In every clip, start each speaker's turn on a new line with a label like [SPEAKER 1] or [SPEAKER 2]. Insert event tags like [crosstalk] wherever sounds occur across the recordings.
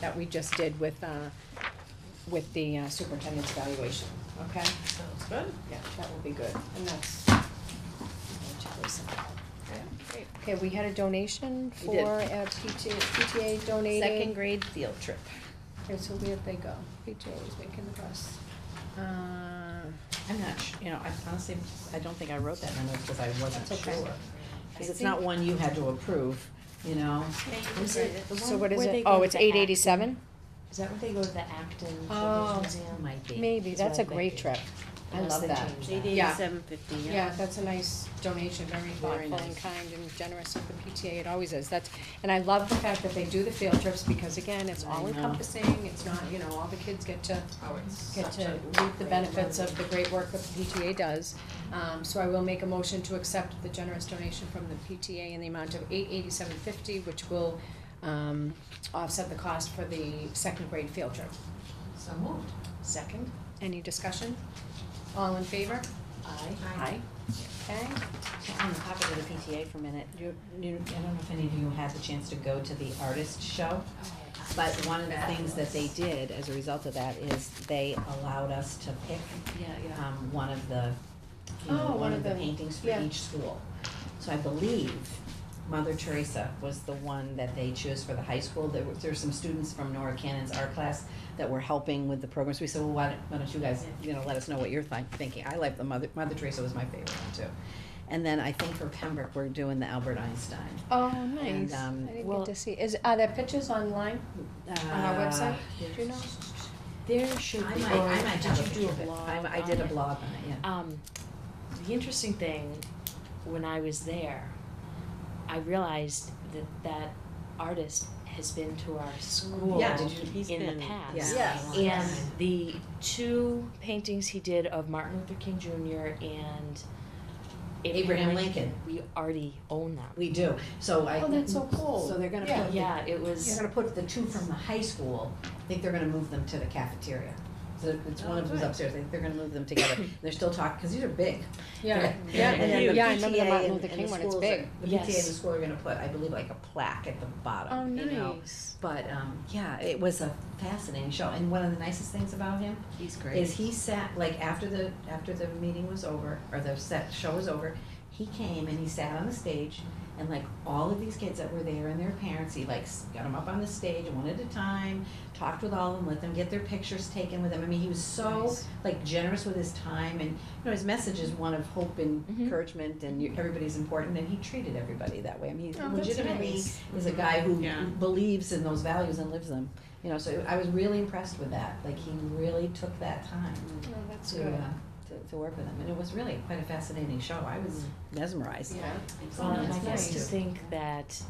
[SPEAKER 1] that we just did with, uh, with the uh, superintendent's evaluation, okay?
[SPEAKER 2] Sounds good.
[SPEAKER 1] Yeah, that will be good, and that's.
[SPEAKER 2] Great.
[SPEAKER 1] Okay, we had a donation
[SPEAKER 2] We did.
[SPEAKER 1] for, uh, PTA, PTA donated.
[SPEAKER 2] Second grade field trip.
[SPEAKER 1] Okay, so where'd they go? PTA was making the bus.
[SPEAKER 2] Uh, I'm not, su- you know, I honestly, I don't think I wrote that memo because I wasn't
[SPEAKER 1] That's
[SPEAKER 2] sure.
[SPEAKER 1] okay.
[SPEAKER 2] Because it's not one you had to approve, you know?
[SPEAKER 3] Is it the
[SPEAKER 1] So
[SPEAKER 3] one
[SPEAKER 1] what is
[SPEAKER 3] where they
[SPEAKER 1] it?
[SPEAKER 3] go
[SPEAKER 1] Oh,
[SPEAKER 3] to
[SPEAKER 1] it's
[SPEAKER 3] the
[SPEAKER 1] eight
[SPEAKER 3] Act-
[SPEAKER 1] eighty-seven?
[SPEAKER 3] Is that where they go to the Acton
[SPEAKER 1] Oh.
[SPEAKER 3] Children's Museum?
[SPEAKER 2] Might be.
[SPEAKER 1] Maybe, that's a
[SPEAKER 3] what I
[SPEAKER 1] great
[SPEAKER 3] think.
[SPEAKER 1] trip. I
[SPEAKER 3] Unless
[SPEAKER 1] love
[SPEAKER 3] they
[SPEAKER 1] that.
[SPEAKER 3] change
[SPEAKER 1] did. Yeah.
[SPEAKER 4] Eighty-seven fifty, yeah.
[SPEAKER 1] Yeah, that's a nice donation, very
[SPEAKER 2] Very
[SPEAKER 1] thoughtful and
[SPEAKER 2] nice.
[SPEAKER 1] kind and generous of the PTA, it always is, that's, and I love the fact that they do the field trips, because again, it's
[SPEAKER 2] I know.
[SPEAKER 1] all encompassing, it's not, you know, all the kids get to,
[SPEAKER 3] Oh, it's
[SPEAKER 1] get
[SPEAKER 3] such
[SPEAKER 1] to
[SPEAKER 3] a
[SPEAKER 1] reap the
[SPEAKER 3] great
[SPEAKER 1] benefits of the
[SPEAKER 3] program.
[SPEAKER 1] great work that the PTA does. Um, so I will make a motion to accept the generous donation from the PTA in the amount of eight eighty-seven fifty, which will, um, offset the cost for the second grade field trip.
[SPEAKER 3] So moved.
[SPEAKER 1] Second, any discussion? All in favor?
[SPEAKER 3] Aye.
[SPEAKER 1] Okay,
[SPEAKER 2] On the topic of the PTA for a minute, you, you, I don't know if any of you had the chance to go to the artist show,
[SPEAKER 3] Oh,
[SPEAKER 2] but one of the things that they did as a result of that is they allowed us to pick
[SPEAKER 3] Yeah, yeah.
[SPEAKER 2] um, one of the, you know,
[SPEAKER 1] Oh,
[SPEAKER 2] one of the paintings for
[SPEAKER 1] yeah.
[SPEAKER 2] each school. So I believe Mother Teresa was the one that they chose for the high school. There were, there were some students from Nora Cannon's art class that were helping with the programs. We said, well, why don't, why don't you guys, you know, let us know what you're thi- thinking. I like the Mother, Mother Teresa was my favorite one too. And then I think for Pembroke, we're doing the Albert Einstein.
[SPEAKER 1] Oh, nice.
[SPEAKER 2] um,
[SPEAKER 1] I didn't
[SPEAKER 2] well- Uh,
[SPEAKER 1] get to see. Is are there pictures online on our website? Do you know?
[SPEAKER 3] There should
[SPEAKER 2] I
[SPEAKER 3] be.
[SPEAKER 2] might, I
[SPEAKER 3] or
[SPEAKER 2] might have a
[SPEAKER 3] Did you
[SPEAKER 2] picture
[SPEAKER 3] do a
[SPEAKER 2] of it.
[SPEAKER 3] blog?
[SPEAKER 2] I, I did
[SPEAKER 3] on
[SPEAKER 2] a
[SPEAKER 3] it?
[SPEAKER 2] blog on it, yeah.
[SPEAKER 3] Um, the interesting thing, when I was there, I realized that that artist has been to our school
[SPEAKER 2] Yeah, did you-
[SPEAKER 4] he's
[SPEAKER 3] in the
[SPEAKER 4] been-
[SPEAKER 3] past.
[SPEAKER 2] yeah.
[SPEAKER 4] Yes.
[SPEAKER 3] And the two paintings he did of Martin Luther King Jr. and
[SPEAKER 2] Abraham Lincoln,
[SPEAKER 3] we already own them.
[SPEAKER 2] we do, so I.
[SPEAKER 1] Oh, that's so cool.
[SPEAKER 2] So they're gonna
[SPEAKER 1] Yeah.
[SPEAKER 2] put the
[SPEAKER 3] Yeah, it
[SPEAKER 2] They're
[SPEAKER 3] was.
[SPEAKER 2] gonna put the two from the high school, I think they're gonna move them to the cafeteria. So it's one of
[SPEAKER 1] Oh,
[SPEAKER 2] them's upstairs, I think they're gonna move them together.
[SPEAKER 1] [coughs]
[SPEAKER 2] They're still talking, because these are big.
[SPEAKER 1] Yeah,
[SPEAKER 2] They're-
[SPEAKER 1] yeah,
[SPEAKER 2] And then the
[SPEAKER 1] yeah. I remember the
[SPEAKER 2] PTA
[SPEAKER 1] Martin
[SPEAKER 2] and-
[SPEAKER 1] Luther
[SPEAKER 2] and
[SPEAKER 1] King
[SPEAKER 2] the
[SPEAKER 1] one. It's
[SPEAKER 2] schools
[SPEAKER 1] big.
[SPEAKER 2] are- The PTA and the
[SPEAKER 3] Yes.
[SPEAKER 2] school are gonna put, I believe, like a plaque at the
[SPEAKER 1] Oh,
[SPEAKER 2] bottom, you know?
[SPEAKER 1] nice.
[SPEAKER 2] But, um, yeah, it was a fascinating show, and one of the nicest things about him
[SPEAKER 4] He's
[SPEAKER 2] is he sat, like, after the, after the meeting was over, or the set, show was over, he came and he sat on the stage, and like, all of these kids that were there and their parents, he like, s- got them up on the stage one at a time, talked with all of them, let them get their pictures taken with them, I mean, he was so, Oh,
[SPEAKER 1] Nice.
[SPEAKER 2] like, generous with his time, and, you know, his message is one of hope and
[SPEAKER 1] Mm-hmm.
[SPEAKER 3] Mhm.
[SPEAKER 2] encouragement, and you- everybody's important, and he treated everybody that way, I mean, he
[SPEAKER 1] Oh, that's
[SPEAKER 2] legitimately
[SPEAKER 1] nice.
[SPEAKER 2] is a guy who
[SPEAKER 4] Yeah.
[SPEAKER 2] believes in those values and lives them, you know, so I was really impressed with that, like, he really took that time
[SPEAKER 1] Oh, that's
[SPEAKER 2] to,
[SPEAKER 1] good.
[SPEAKER 2] uh, to, to work with them, and it was really quite a fascinating show, I was
[SPEAKER 4] Mm.
[SPEAKER 2] mesmerized.
[SPEAKER 1] Yeah.
[SPEAKER 3] Um, I
[SPEAKER 2] that's
[SPEAKER 3] guess to
[SPEAKER 2] nice.
[SPEAKER 3] think that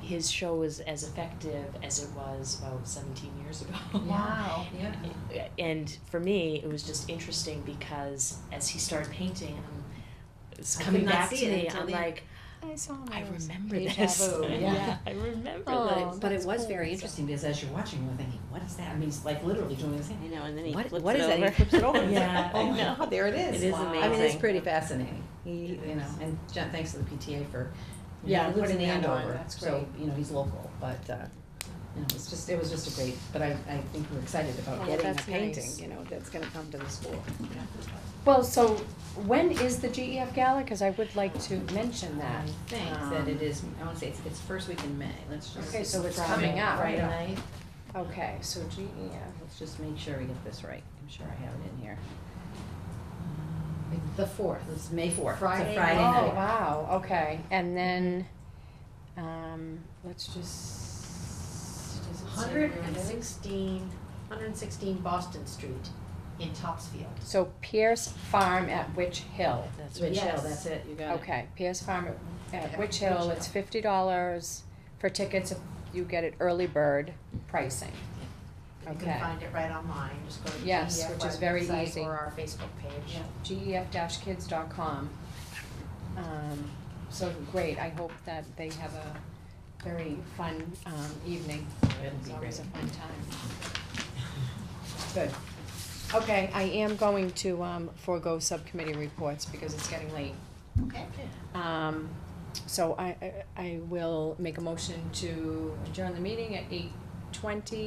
[SPEAKER 3] his show was as effective as it was about 17 years ago.
[SPEAKER 1] Wow.
[SPEAKER 2] Yeah.
[SPEAKER 3] And for me, it was just interesting because as he started painting, um, it's
[SPEAKER 2] I could
[SPEAKER 3] coming
[SPEAKER 2] not
[SPEAKER 3] back
[SPEAKER 2] see
[SPEAKER 3] to
[SPEAKER 2] it
[SPEAKER 3] me.
[SPEAKER 2] until
[SPEAKER 3] I'm
[SPEAKER 2] the-
[SPEAKER 3] like,
[SPEAKER 1] I saw
[SPEAKER 3] I
[SPEAKER 1] those.
[SPEAKER 3] remember
[SPEAKER 1] Deja
[SPEAKER 3] this.
[SPEAKER 2] [laughs]
[SPEAKER 3] [laughs]
[SPEAKER 1] vu.
[SPEAKER 2] Yeah.
[SPEAKER 3] I remember
[SPEAKER 1] Oh,
[SPEAKER 3] this.
[SPEAKER 2] But it
[SPEAKER 1] that's
[SPEAKER 2] was
[SPEAKER 1] cool.
[SPEAKER 2] very interesting, because as you're watching, you're thinking, what is that, I mean, it's like literally doing the
[SPEAKER 4] I
[SPEAKER 2] same.
[SPEAKER 4] know, and then he
[SPEAKER 2] What,
[SPEAKER 4] flips it over.
[SPEAKER 2] what is that, he flips it
[SPEAKER 4] [laughs]
[SPEAKER 2] over,
[SPEAKER 3] Yeah,
[SPEAKER 2] oh
[SPEAKER 3] I
[SPEAKER 2] my
[SPEAKER 3] know.
[SPEAKER 2] God, there it is.
[SPEAKER 4] It is
[SPEAKER 2] Wow.
[SPEAKER 4] amazing.
[SPEAKER 2] I mean, it's pretty fascinating, he, you know, and John, thanks to the PTA for, you know,
[SPEAKER 1] Yeah,
[SPEAKER 2] he lives in
[SPEAKER 1] putting that on,
[SPEAKER 2] Andover,
[SPEAKER 1] that's
[SPEAKER 2] so, you know, he's local, but, uh, you know, it's just, it was just a great, but I, I think we're excited
[SPEAKER 1] Oh,
[SPEAKER 2] about getting a
[SPEAKER 1] that's
[SPEAKER 2] painting,
[SPEAKER 1] nice.
[SPEAKER 2] you know, that's gonna come to the school.
[SPEAKER 1] Well, so when is the GEF Gala? Because I would like to mention that. Um,
[SPEAKER 2] I think that um, it is, I wanna say it's, it's first week in May, let's just.
[SPEAKER 1] Okay, so it's
[SPEAKER 2] Friday-
[SPEAKER 1] coming up.
[SPEAKER 2] Friday night,
[SPEAKER 1] Okay, so E GEF.
[SPEAKER 2] let's just make sure we get this right, I'm sure I have it in here. The fourth, it's May fourth, it's a Friday
[SPEAKER 1] Oh,
[SPEAKER 2] night.
[SPEAKER 1] wow, okay. And then, um, let's just. does it say
[SPEAKER 5] Hundred
[SPEAKER 1] where
[SPEAKER 5] and
[SPEAKER 1] it is?
[SPEAKER 5] sixteen, hundred and sixteen Boston Street in Topsfield.
[SPEAKER 1] So Pierce Farm at Witch Hill.
[SPEAKER 3] That's
[SPEAKER 2] Which
[SPEAKER 5] Yes.
[SPEAKER 2] Hill, that's it, you got it.
[SPEAKER 1] Okay, Pierce Farm at- at
[SPEAKER 5] Yeah,
[SPEAKER 1] Witch Hill,
[SPEAKER 5] Witch
[SPEAKER 1] it's fifty dollars for tickets if you get it early bird pricing.
[SPEAKER 5] You
[SPEAKER 1] Okay.
[SPEAKER 5] can find it right online, just go to the
[SPEAKER 1] Yes,
[SPEAKER 5] GEF
[SPEAKER 1] which is very
[SPEAKER 5] website
[SPEAKER 1] easy.
[SPEAKER 5] or our Facebook page.
[SPEAKER 1] E gef-kids.com. Um, so great, I hope that they have a very fun, um, evening.
[SPEAKER 2] It'll
[SPEAKER 1] It's
[SPEAKER 2] be
[SPEAKER 1] always
[SPEAKER 2] great.
[SPEAKER 1] a fun time. Good. Okay, I am going to, um, forego subcommittee reports because it's getting late.
[SPEAKER 5] Okay.
[SPEAKER 1] Um, so I, I, I will make a motion to adjourn the meeting at eight twenty.